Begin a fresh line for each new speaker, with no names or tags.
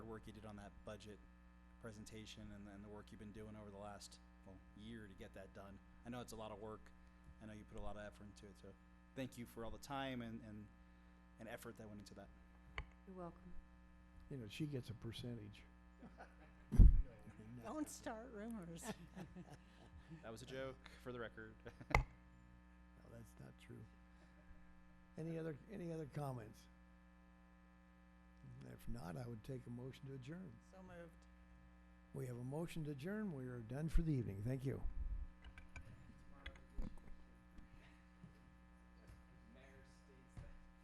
work you did on that budget presentation and then the work you've been doing over the last, well, year to get that done. I know it's a lot of work. I know you put a lot of effort into it, so thank you for all the time and, and, and effort that went into that.
You're welcome.
You know, she gets a percentage.
Don't start rumors.
That was a joke, for the record.
No, that's not true. Any other, any other comments? If not, I would take a motion to adjourn.
So moved.
We have a motion to adjourn. We are done for the evening. Thank you.